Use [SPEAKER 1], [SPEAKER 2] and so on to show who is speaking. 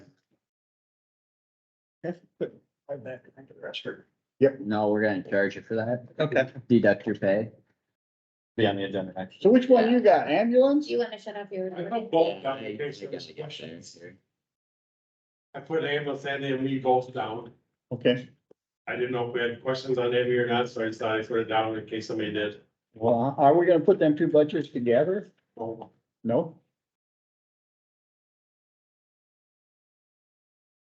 [SPEAKER 1] I'm back into the restroom.
[SPEAKER 2] No, we're gonna charge you for that,
[SPEAKER 1] Okay.
[SPEAKER 2] deduct your pay.
[SPEAKER 3] Be on the agenda next.
[SPEAKER 4] So which one you got, ambulance?
[SPEAKER 5] Do you wanna shut off your?
[SPEAKER 1] I thought both got the case of the questions. I put ambulance in and we both down.
[SPEAKER 4] Okay,
[SPEAKER 1] I didn't know if we had questions on Amy or not, so I decided I put it down in case somebody did.
[SPEAKER 4] well, are we gonna put them two budgets together?
[SPEAKER 1] Well,
[SPEAKER 4] No?